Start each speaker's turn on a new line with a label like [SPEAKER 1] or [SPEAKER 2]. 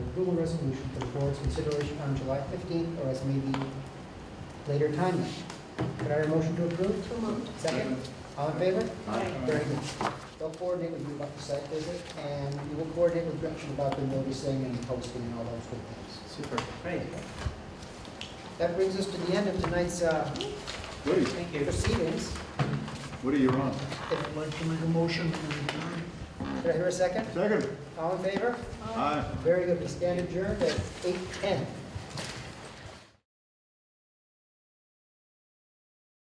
[SPEAKER 1] approval resolution for the board's consideration on July 15th or as may be later timely. Could I have a motion to approve?
[SPEAKER 2] So moved.
[SPEAKER 1] Second? All in favor?
[SPEAKER 2] Aye.
[SPEAKER 1] Very good. They'll coordinate with you about the site visit, and you will coordinate with Gretchen about the noticing and posting and all those good things.
[SPEAKER 3] Super.
[SPEAKER 1] Great. That brings us to the end of tonight's uh,
[SPEAKER 3] Woody,
[SPEAKER 2] Thank you.
[SPEAKER 1] proceedings.
[SPEAKER 3] Woody, you're on.
[SPEAKER 1] If-
[SPEAKER 4] I'd like to make a motion.
[SPEAKER 1] Could I hear a second?
[SPEAKER 3] Second.
[SPEAKER 1] All in favor?
[SPEAKER 3] Aye.
[SPEAKER 1] Very good, we stand adjourned at 8:10.